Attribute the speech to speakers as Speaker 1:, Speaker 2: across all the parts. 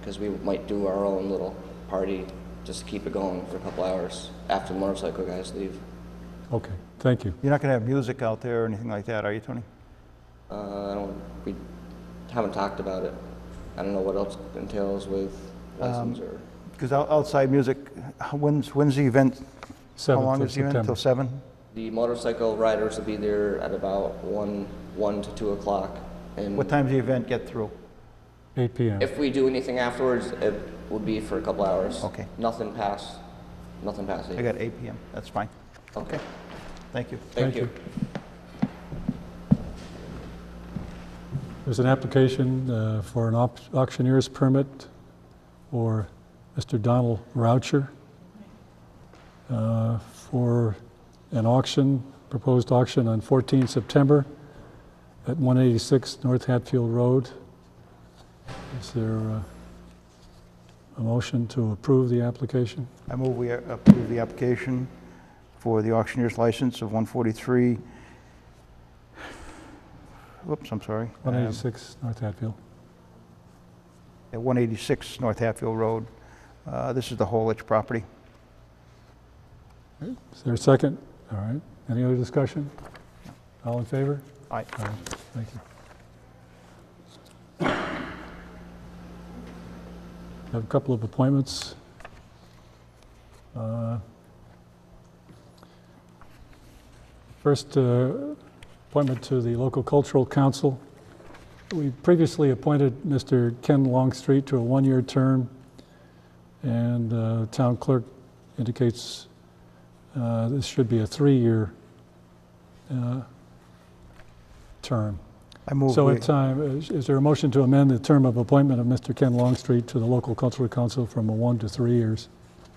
Speaker 1: because we might do our own little party just to keep it going for a couple hours after the motorcycle guys leave.
Speaker 2: Okay, thank you.
Speaker 3: You're not going to have music out there or anything like that, are you, Tony?
Speaker 1: Uh, I don't, we haven't talked about it. I don't know what else it entails with
Speaker 3: Um,
Speaker 1: license or,
Speaker 3: Because outside music, h- when's, when's the event? How
Speaker 2: 7th
Speaker 3: long
Speaker 2: of
Speaker 3: is the event? Till
Speaker 2: September.
Speaker 3: 7?
Speaker 1: the motorcycle riders will be there at about one, one to two o'clock. And
Speaker 3: What time's the event get through?
Speaker 2: 8 PM.
Speaker 1: If we do anything afterwards, it would be for a couple hours.
Speaker 3: Okay.
Speaker 1: Nothing past, nothing past
Speaker 3: I
Speaker 1: eight.
Speaker 3: got 8 PM, that's fine.
Speaker 1: Okay.
Speaker 3: Thank you.
Speaker 1: Thank you.
Speaker 2: There's an application uh, for an op- auctioneer's permit for Mr. Donald Roucher uh, for an auction, proposed auction on 14 September at 186 North Hatfield Road. Is there uh, a motion to approve the application?
Speaker 3: I move we approve the application for the auctioneer's license of 143, whoops, I'm sorry. um,
Speaker 2: 186 North Hatfield.
Speaker 3: At 186 North Hatfield Road. Uh, This is the Holich property.
Speaker 2: Is there a second? All right. Any other discussion? All in favor?
Speaker 3: Aye.
Speaker 2: All right. Thank you. Have a couple of appointments. Uh, First uh, appointment to the local cultural council. We previously appointed Mr. Ken Longstreet to a one-year term, and uh, town clerk indicates uh, this should be a three-year uh, term.
Speaker 3: I move
Speaker 2: So
Speaker 3: we-
Speaker 2: at time, is is there a motion to amend the term of appointment of Mr. Ken Longstreet to the local cultural council from a one to three years?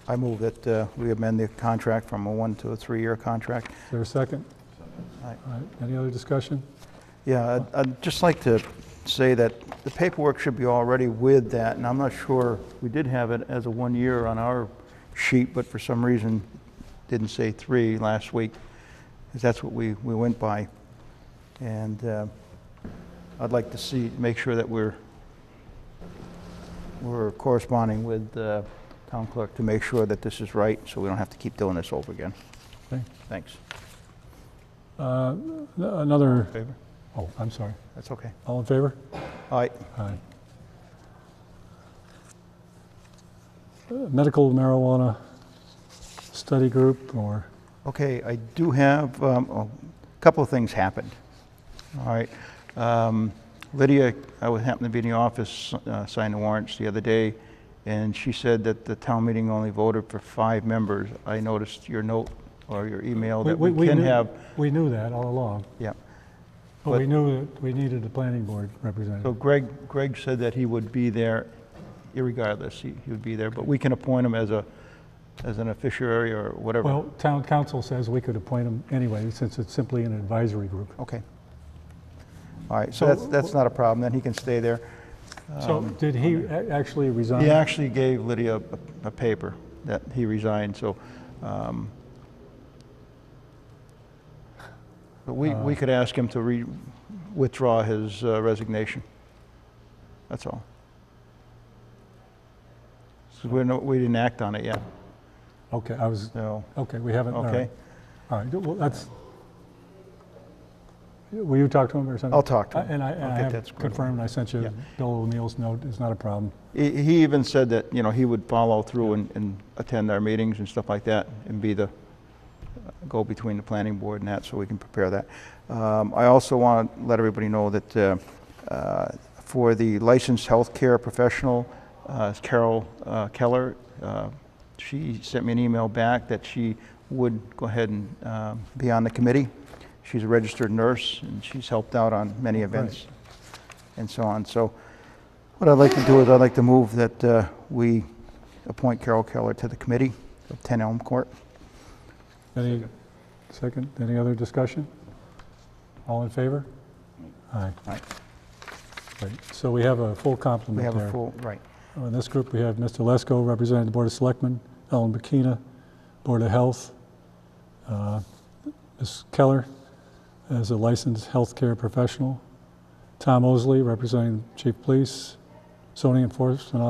Speaker 3: I move that uh, we amend the contract from a one to a three-year contract.
Speaker 2: Is there a second?
Speaker 3: Aye.
Speaker 2: All right, any other discussion?
Speaker 3: Yeah, I'd- I'd just like to say that the paperwork should be already with that, and I'm not sure, we did have it as a one-year on our sheet, but for some reason, didn't say three last week, 'cause that's what we, we went by. And uh, I'd like to see, make sure that we're, we're corresponding with the town clerk to make sure that this is right, so we don't have to keep doing this over again.
Speaker 2: Okay.
Speaker 3: Thanks.
Speaker 2: Uh, Another,
Speaker 3: Favor?
Speaker 2: oh, I'm sorry.
Speaker 3: That's okay.
Speaker 2: All in favor?
Speaker 3: All right,
Speaker 2: Aye. Uh, Medical marijuana study group or,
Speaker 3: Okay, I do have, um, a couple of things happened. All right. Um, Lydia, I was- happened to be in the office, uh, signing warrants the other day, and she said that the town meeting only voted for five members. I noticed your note or your email
Speaker 2: We-
Speaker 3: that
Speaker 2: we- we
Speaker 3: we can
Speaker 2: knew-
Speaker 3: have.
Speaker 2: we knew that all along,
Speaker 3: Yeah.
Speaker 2: but we knew that we needed a planning board representative.
Speaker 3: So Greg, Greg said that he would be there irregardless. He he would be there, but we can appoint him as a, as an officiary or whatever.
Speaker 2: Well, town council says we could appoint them anyway, since it's simply an advisory group.
Speaker 3: Okay. All right,
Speaker 2: So-
Speaker 3: so that's, that's not a problem. Then he can stay there.
Speaker 2: So
Speaker 3: Um,
Speaker 2: did he a- actually resign?
Speaker 3: He actually gave Lydia a- a paper that he resigned, so, um, but we, we
Speaker 2: Uh.
Speaker 3: could ask him to re, withdraw his uh, resignation. That's all. So we're no, we didn't act on it yet,
Speaker 2: Okay, I was,
Speaker 3: so,
Speaker 2: okay, we haven't, all
Speaker 3: okay.
Speaker 2: right. All right, well, that's, will you talk to him or something?
Speaker 3: I'll talk to
Speaker 2: I-
Speaker 3: him.
Speaker 2: And I, and
Speaker 3: I'll
Speaker 2: I
Speaker 3: get that
Speaker 2: have
Speaker 3: squared away.
Speaker 2: confirmed, I sent
Speaker 3: Yeah.
Speaker 2: you Bill O'Neill's note, it's not a problem.
Speaker 3: He, he even said that, you know, he would follow through and, and attend our meetings and stuff like that and be the, uh, go between the planning board and that, so we can prepare that. Um, I also want to let everybody know that, uh, uh, for the licensed healthcare professional, uh, Carol uh, Keller, uh, she sent me an email back that she would go ahead and, um, be on the committee. She's a registered nurse and she's helped out on many events and so on. So what I'd like to do is I'd like to move that uh, we appoint Carol Keller to the committee of 10 Elm Court.
Speaker 2: Any, second, any other discussion? All in favor? Aye.
Speaker 3: Aye.
Speaker 2: Right, So we have a full complement
Speaker 3: We
Speaker 2: there.
Speaker 3: have a full, right.
Speaker 2: Uh, In this group, we have Mr. Lesko representing the Board of Selectmen, Ellen Bikina, Board of Health, uh, Ms. Keller as a licensed healthcare professional, Tom Osley representing Chief Police, zoning enforcement